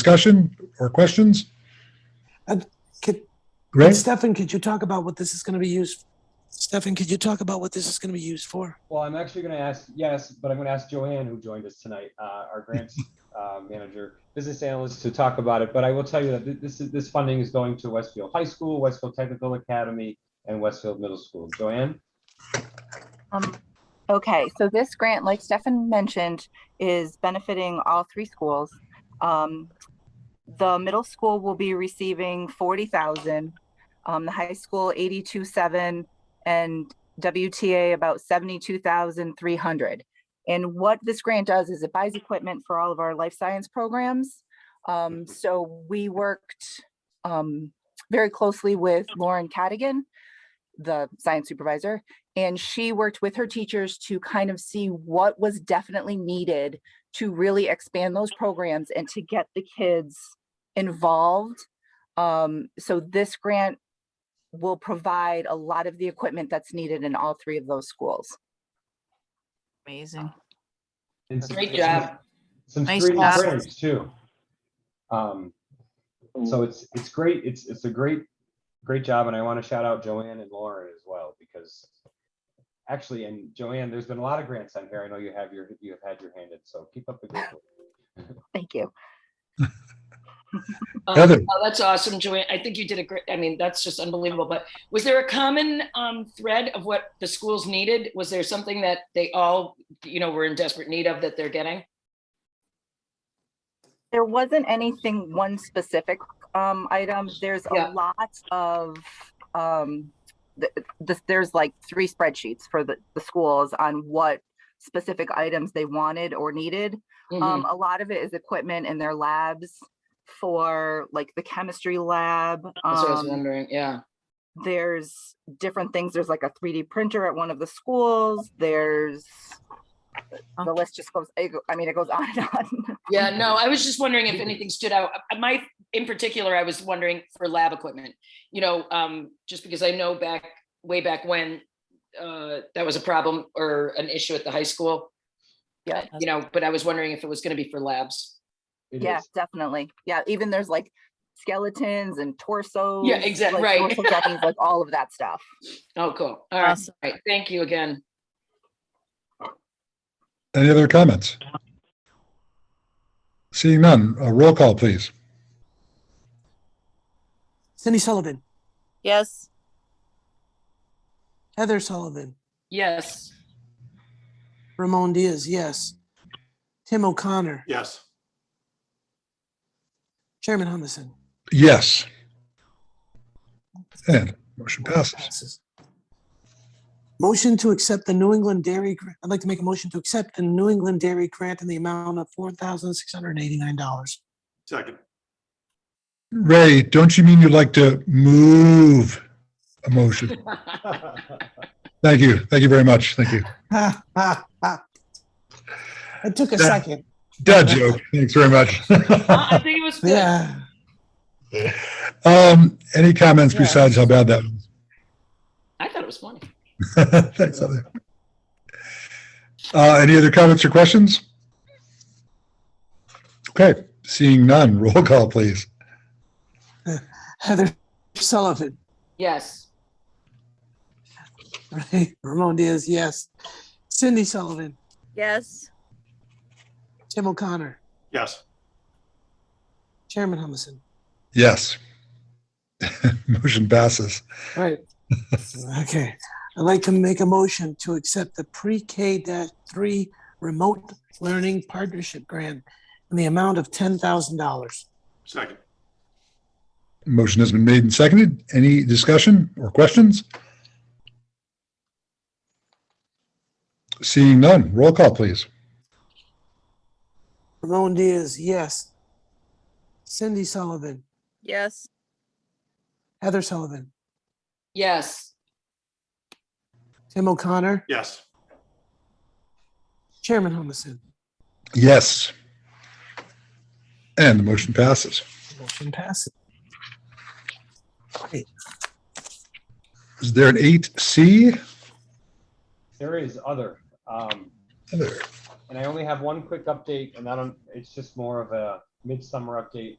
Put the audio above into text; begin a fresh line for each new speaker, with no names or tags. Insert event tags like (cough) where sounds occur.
discussion or questions?
Uh, could-
Greg?
Stefan, could you talk about what this is going to be used? Stefan, could you talk about what this is going to be used for?
Well, I'm actually going to ask, yes, but I'm going to ask Joanne, who joined us tonight, uh, our
(laughs)
grants uh, manager, business analyst, to talk about it. But I will tell you that thi- this is, this funding is going to Westfield High School, Westfield Technical Academy, and Westfield Middle School. Joanne?
Um, okay, so this grant, like Stefan mentioned, is benefiting all three schools. Um, the middle school will be receiving forty thousand, um, the high school eighty-two seven, and WTA about seventy-two thousand three hundred. And what this grant does is it buys equipment for all of our life science programs. Um, so we worked, um, very closely with Lauren Cadigan, the science supervisor, and she worked with her teachers to kind of see what was definitely needed to really expand those programs and to get the kids involved. Um, so this grant will provide a lot of the equipment that's needed in all three of those schools.
Amazing.
And some-
Great
some-
job.
Some
Nice
great
job.
grants too. Um, so it's, it's great. It's, it's a great, great job. And I want to shout out Joanne and Lauren as well, because actually, and Joanne, there's been a lot of grants on here. I know you have your, you have had your hand in, so keep up the good work.
Thank you.
Um,
Heather?
oh, That's awesome, Joanne. I think you did a great, I mean, that's just unbelievable. But was there a common um, thread of what the schools needed? Was there something that they all, you know, were in desperate need of that they're getting?
There wasn't anything, one specific um item. There's
Yeah.
a lot of um th- th- there's like three spreadsheets for the, the schools on what specific items they wanted or needed.
Mhm.
Um, a lot of it is equipment in their labs for like the chemistry lab.
That's what I was
um,
wondering, yeah.
there's different things. There's like a 3D printer at one of the schools. There's the list just goes, it go- I mean, it goes (laughs) on and on.
Yeah, no, I was just wondering if anything stood out. Uh, My, in particular, I was wondering for lab equipment. You know, um, just because I know back, way back when, uh, that was a problem or an issue at the high school.
Yeah.
Uh, You know, but I was wondering if it was gonna be for labs.
It
Yeah,
is.
definitely. Yeah, even there's like skeletons and torsos.
exact-
like,
right. (laughs)
torso dummies, Like all of that stuff.
Oh, cool. All right,
Awesome.
all right. Thank you again.
Any other comments? Seeing none, a roll call, please.
Cindy Sullivan,
Yes.
Heather Sullivan,
Yes.
Ramon Diaz, yes. Tim O'Connor,
Yes.
Chairman Humison.
Yes. And motion passes.
Passes. Motion to accept the New England Dairy, Gra- I'd like to make a motion to accept the New England Dairy Grant in the amount of $4,689.
Second.
Ray, don't you mean you'd like to move a motion? Thank you. Thank you very much. Thank you.
Ha, ha, ha. It took a
That-
second.
Dad joke. Thanks very much. (laughs)
I think it was good.
Yeah.
Um, any comments
Yeah.
besides how bad that was?
I thought it was funny.
(laughs) Thanks, Heather. Uh, any other comments or questions? Okay, seeing none, (laughs) roll call, please.
Heather Sullivan,
Yes.
right? (laughs) Ramon Diaz, yes. Cindy Sullivan,
Yes.
Tim O'Connor,
Yes.
Chairman Humison.
Yes. (laughs) Motion passes.
Right. Okay, I'd like to make a motion to accept the pre-K dash three remote learning partnership grant in the amount of ten thousand dollars.
Second.
Motion has been made and seconded. Any discussion or questions? Seeing none, roll call, please.
Ramon Diaz, yes. Cindy Sullivan,
Yes.
Heather Sullivan,
Yes.
Tim O'Connor,
Yes.
Chairman Humison.
Yes. And the motion passes.
Motion passes.
Is there an eight C?
There is other. Um,
Heather?
and I only have one quick update, and I don't, it's just more of a midsummer update